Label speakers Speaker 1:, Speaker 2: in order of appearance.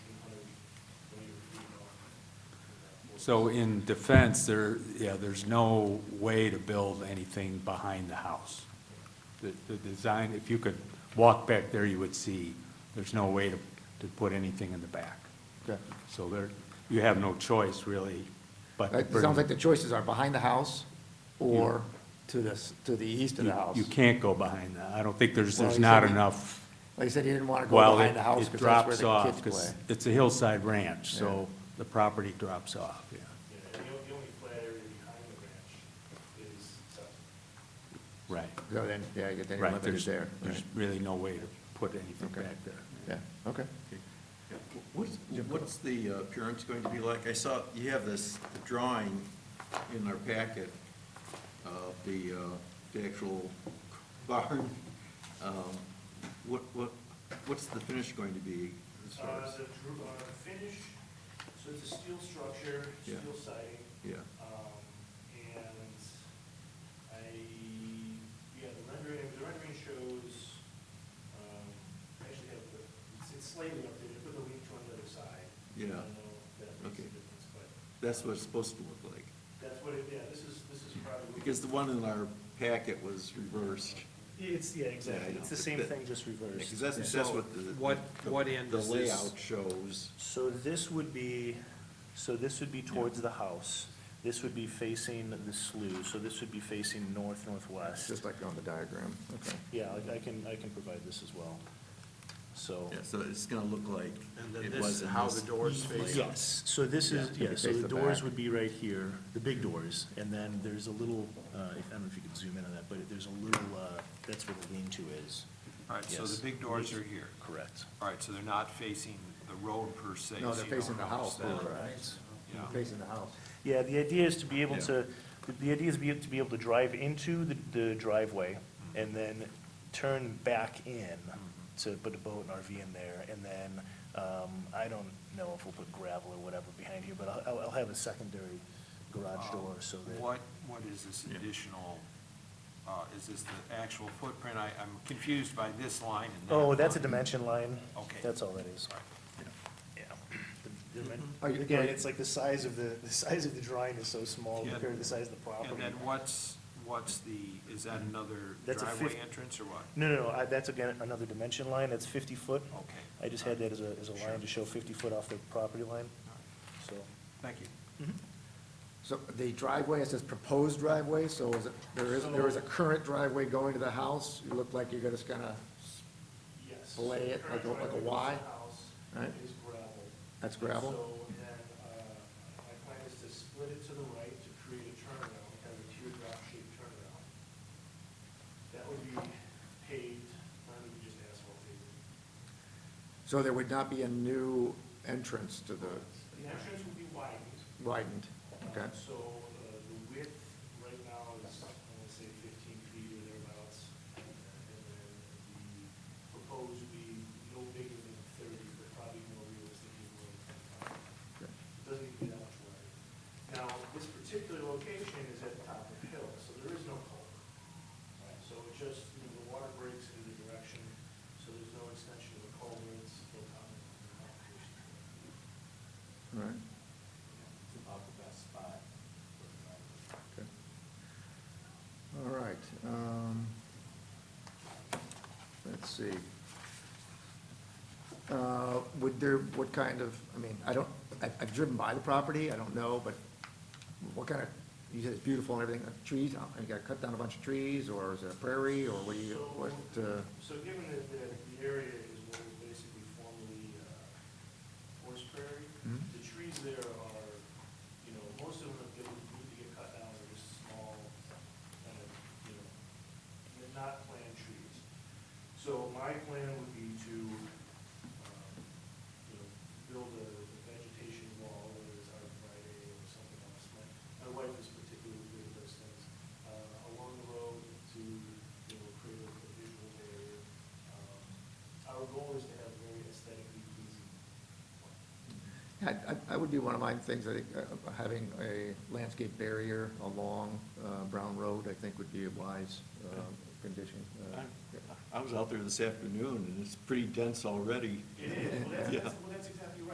Speaker 1: So in defense, there, yeah, there's no way to build anything behind the house. The, the design, if you could walk back there, you would see, there's no way to, to put anything in the back.
Speaker 2: Okay.
Speaker 1: So there, you have no choice really, but. to
Speaker 2: It
Speaker 1: bring-
Speaker 2: sounds like the choices are behind the house or to the, s- to the east of
Speaker 1: you-
Speaker 2: the house.
Speaker 1: You can't go behind that. I don't think there's,
Speaker 2: Well,
Speaker 1: there's
Speaker 2: he said
Speaker 1: not
Speaker 2: he-
Speaker 1: enough,
Speaker 2: Like you said, he didn't want to go
Speaker 1: well,
Speaker 2: behind
Speaker 1: it
Speaker 2: the house
Speaker 1: it
Speaker 2: because that's where
Speaker 1: drops
Speaker 2: the
Speaker 1: off,
Speaker 2: kids play.
Speaker 1: because it's a hillside ranch, so the property drops off, yeah.
Speaker 3: Yeah, the only, the only flat area behind the ranch is uh, septic.
Speaker 1: Right,
Speaker 2: So then, yeah, you get then you're
Speaker 1: right.
Speaker 2: limited
Speaker 1: There's,
Speaker 2: there.
Speaker 1: there's
Speaker 2: right.
Speaker 1: really no way to put anything
Speaker 2: Okay.
Speaker 1: back there.
Speaker 2: Yeah, okay.
Speaker 4: What's, what's the appearance going to be like? I saw, you have this drawing in our packet of the, uh, the actual barn. Um, What, what, what's the finish going to be? as far
Speaker 3: Uh,
Speaker 4: as-
Speaker 3: the dr- uh, the finish, so it's a steel structure,
Speaker 4: Yeah.
Speaker 3: steel siding,
Speaker 4: Yeah,
Speaker 3: um, and I, yeah, the rendering, the rendering shows, um, I actually have the, it's- it's slightly updated, put the leaf joint on the other side. I
Speaker 4: Yeah.
Speaker 3: don't know if that makes a
Speaker 4: Okay.
Speaker 3: difference, but
Speaker 4: that's what it's supposed to look like.
Speaker 3: that's what it, yeah, this is, this is probably.
Speaker 4: Because the one in our packet was reversed.
Speaker 3: It's, yeah, exactly,
Speaker 4: know,
Speaker 3: it's the
Speaker 4: but
Speaker 3: same
Speaker 4: that-
Speaker 3: thing, just reversed.
Speaker 4: Because that's, that's
Speaker 3: So
Speaker 4: what the.
Speaker 3: What, what end is
Speaker 4: The
Speaker 3: this?
Speaker 4: layout shows.
Speaker 3: So this would be, so this would be towards the house. This would be facing the slough, so this would be facing north,
Speaker 2: It's
Speaker 3: northwest.
Speaker 2: just like on the diagram, okay.
Speaker 3: Yeah, I I can, I can provide this as well. So,
Speaker 4: Yeah, so it's gonna look like
Speaker 5: And then
Speaker 4: it
Speaker 5: this
Speaker 4: was
Speaker 5: is
Speaker 4: in
Speaker 5: how
Speaker 4: this-
Speaker 5: the doors face up.
Speaker 3: yes, so this is,
Speaker 2: Yeah.
Speaker 3: yeah, so
Speaker 2: Face
Speaker 3: the
Speaker 2: the
Speaker 3: doors
Speaker 2: back.
Speaker 3: would be right here, the big doors. And then there's a little, uh, if- I don't know if you could zoom in on that, but there's a little, uh, that's where the lean-to is.
Speaker 5: All right, so
Speaker 3: Yes.
Speaker 5: the big doors are here.
Speaker 3: Correct.
Speaker 5: All right, so they're not facing the road per se.
Speaker 2: No,
Speaker 5: so
Speaker 2: they're
Speaker 5: you don't
Speaker 2: facing the house,
Speaker 5: notice that.
Speaker 2: right?
Speaker 5: Yeah.
Speaker 2: Facing the house.
Speaker 3: Yeah, the idea is to be able
Speaker 4: Yeah.
Speaker 3: to, the- the idea is be- to be able to drive into the- the driveway and then turn back in
Speaker 5: Mm-hmm.
Speaker 3: to put a boat and RV in there. And then, um, I don't know if we'll put gravel or whatever behind here, but I'll- I'll, I'll have a secondary garage door so that.
Speaker 5: Uh, What, what is this additional, uh, is this the actual footprint? I, I'm confused by this line and that.
Speaker 3: Oh, that's a dimension line.
Speaker 5: Okay.
Speaker 3: That's all that is.
Speaker 5: All right. Mm-hmm.
Speaker 3: Yeah. The- the dimen-
Speaker 2: Are you-
Speaker 3: Again, it's like the size of the, the size of the drawing is so small
Speaker 5: Yeah.
Speaker 3: compared to the size of the property.
Speaker 5: And then what's, what's the, is that another
Speaker 3: That's a
Speaker 5: driveway
Speaker 3: fif-
Speaker 5: entrance or what?
Speaker 3: No, no, no, I- that's again, another dimension line, that's 50 foot.
Speaker 5: Okay.
Speaker 3: I just had that as a, as a line to show 50 foot off the property line,
Speaker 5: All right.
Speaker 3: so.
Speaker 5: Thank you.
Speaker 2: So the driveway, it says proposed driveway, so is it, there is, there is a current driveway going to the house? You look like you're gonna just kinda,
Speaker 3: Yes.
Speaker 2: Fillet it like a- like a Y? Right.
Speaker 3: Is gravel.
Speaker 2: that's gravel?
Speaker 3: So then, uh, my plan is to split it to the right to create a turnaround, kind of a teardrop shaped turnaround. That would be paved, mine would be just asphalt paving.
Speaker 2: So there would not be a new entrance to the
Speaker 3: The entrance would be widened,
Speaker 2: widened, okay?
Speaker 3: Um, So uh, the width right now is, I want to say fifteen feet or thereabouts. And then the proposed would be no bigger than thirty, but probably more realistically more than twenty-five.
Speaker 2: Okay.
Speaker 3: It Doesn't need to be that much wider. Now, this particular location is at the top of the hill, so there is no culvert. Right, So it just, you know, the water breaks in the direction, so there's no extension of the culvert, it's still common.
Speaker 2: All right,
Speaker 3: It's about the best spot.
Speaker 2: okay. All right, um, let's see. Uh, would there, what kind of, I mean, I don't, I've, I've driven by the property, I don't know, but what kind of, you said it's beautiful and everything, uh, trees, uh, you gotta cut down a bunch of trees, or is it a prairie, or what do you, what, uh,
Speaker 3: So given that, that the area is what was basically formerly, uh, horse prairie,
Speaker 2: Mhm.
Speaker 3: the trees there are, you know, most of them that would need to get cut down are just small, kind of, you know, they're not planned trees. So my plan would be to, um, you know, build a vegetation wall, whether it's our Friday or something else. My, my wife is particularly good at those things, uh, along the road to, you know, create a visual barrier. Um, Our goal is to have very aesthetically pleasing.
Speaker 2: I, I- I would be one of my things, I think, uh, having a landscape barrier along uh, Brown Road, I think would be a wise uh, condition. uh,
Speaker 4: I was out there this afternoon, and it's pretty dense already.
Speaker 3: It is, well, that's,
Speaker 4: Yeah.
Speaker 3: that's- well, that's exactly right.